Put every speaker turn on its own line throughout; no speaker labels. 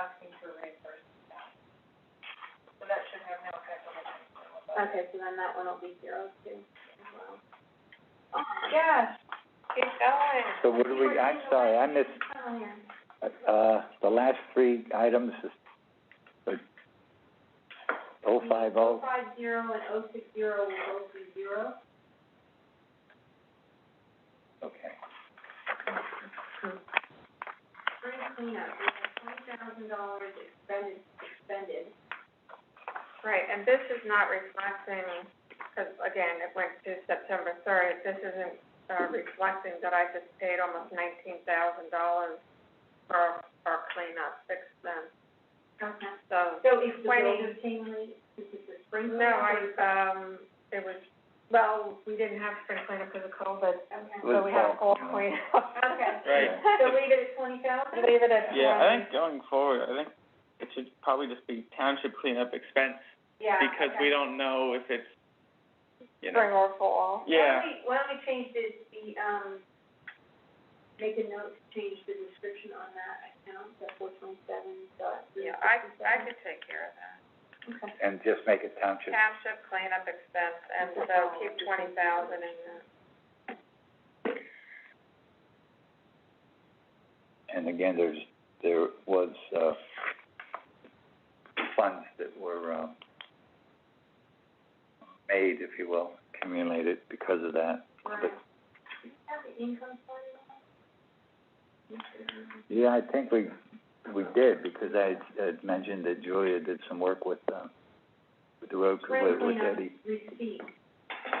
asking for reimbursement now. So that should have no effect on the next one. but-
Okay, so then that one will be zero too, as well. Um,
Yeah, get going.
So what do we, I'm sorry, I missed,
Oh, yeah.
uh, the last three items is, like, oh five oh,
Five zero and oh six zero will both be zero.
okay.
Spring cleanup, we have twenty thousand dollars expended, expended.
Right, and this is not reflecting, because again, it went to September third, this isn't, uh, reflecting that I just paid almost nineteen thousand dollars for, for cleanup expense,
Okay.
so.
So is the
Twenty.
building team, is it the spring
No,
cleanup
I,
or is
um, it was, well, we didn't have spring cleanup because of COVID,
Okay.
Was
so we had a
fall
Oh.
fall
cleanup.
cleanup.
Okay.
Right.
So leave it at twenty thousand?
Leave it at twenty.
Yeah, I think going forward, I think it should probably just be township cleanup expense,
Yeah,
because we
okay.
don't know if it's, you know,
Spring or fall.
yeah.
Why don't we, why don't we change the, the, um, make a note to change the description on that account, that four twenty-seven dot three sixty-seven.
could take care of that.
Okay.
And just make it township,
Township cleanup expense, and so keep twenty thousand in that.
and again, there's, there was, uh, funds that were, um, made, if you will, accumulated because of that.
Right. Do you have the income fund on that?
Yeah, I think we, we did, because I had, had mentioned that Julia did some work with, um, with the road, with, with Eddie.
receipt.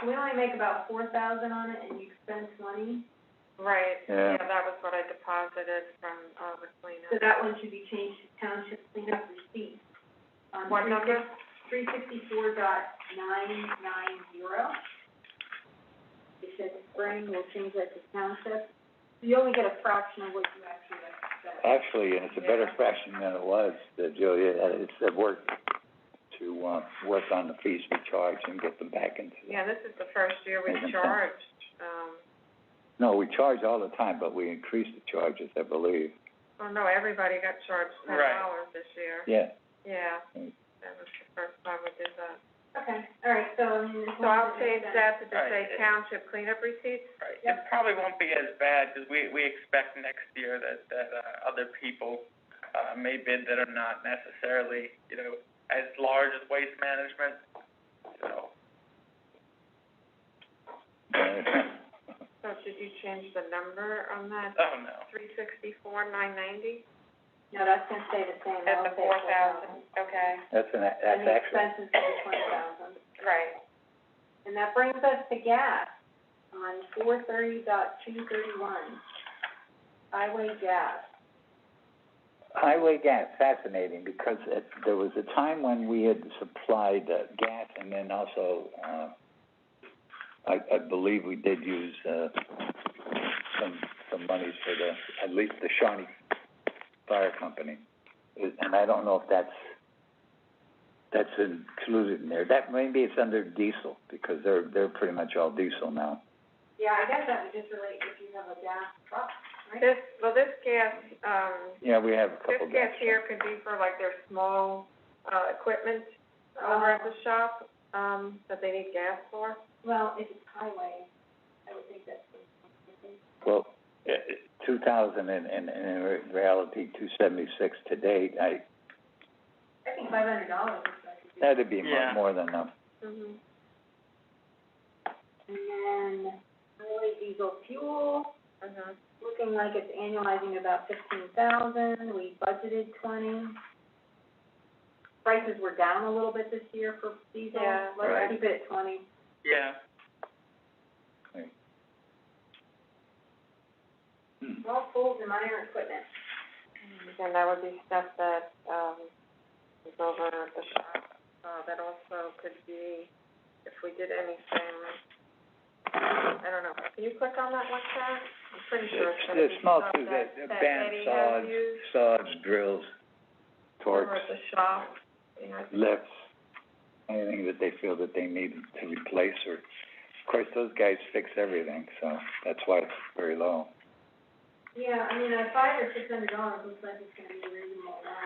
We only make about four thousand on it and you expense money,
Right,
Yeah.
yeah, that was what I deposited from, uh, the cleanup.
so that one should be changed to township cleanup receipt. On
What number?
three sixty-four dot nine nine zero. It says spring, we'll change that to township. You only get a fraction of what you actually expect.
Actually, and it's a better fashion than it was, that Julia, had- it's a work to, uh, work on the fees we charge and get them back into.
Yeah, this is the first year we
Makes sense.
charged, um,
No, we charge all the time, but we increase the charges, I believe.
well, oh, no, everybody got charged ten
Right.
dollars this year.
Yeah,
Yeah,
Mm.
that was the first time we did that.
Okay, all right, so, I mean, this
So I'll
one's
change
expense.
that to just say
Right.
township cleanup receipts.
Right,
Yep.
it probably won't be as bad, 'cause we, we expect next year that, that, uh, other people, uh, may bid that are not necessarily, you know, as large as waste management, so.
So should you change the number on that,
Oh, no.
three sixty-four, nine ninety?
No, that's gonna stay the same,
At
that'll
the
stay
four thousand, okay,
that's an, a-
And
that's
the
actually,
expenses will be twenty thousand.
right.
And that brings us to gas on four thirty dot two thirty-one, highway gas.
highway gas, fascinating, because it, there was a time when we had supplied, uh, gas and then also, uh, I, I believe we did use, uh, some, some monies for the, at least the Shawnee Fire Company. And I don't know if that's, that's included in there. That, maybe it's under diesel, because they're, they're pretty much all diesel now.
Yeah, I guess that would just relate if you have a gas truck, right?
This, well, this gas, um,
Yeah, we have a
This
couple of
gas here could be for like their small, uh, equipment over at the shop, um, that they need gas for.
Well, if it's highway, I would think that's.
Well, eh, two thousand and, and, and in reality, two seventy-six to date, I,
I think five hundred dollars is what I could do.
that'd be more,
Yeah.
more than enough.
Mm-hmm.
And then highway diesel fuel.
Mm-hmm.
looking like it's annualizing about fifteen thousand, we budgeted twenty. Prices were down a little bit this year for diesel,
Yeah.
Right.
let's keep it at twenty.
Yeah,
Small pools and minor equipment.
Mm-hmm. And that would be stuff that, um, is over at the shop, uh, that also could be, if we did anything, I don't know, can you click on that one, Karen? I'm pretty sure it's gonna
The
be
small
stuff
too, the,
that,
the
that
band
Eddie has
saws,
used
saws, drills,
over
torques,
at the shop, you know.
lifts, anything that they feel that they need to replace or, of course, those guys fix everything, so that's why it's very low.
Yeah, I mean, at five or six hundred dollars, looks like it's gonna be a reasonable amount.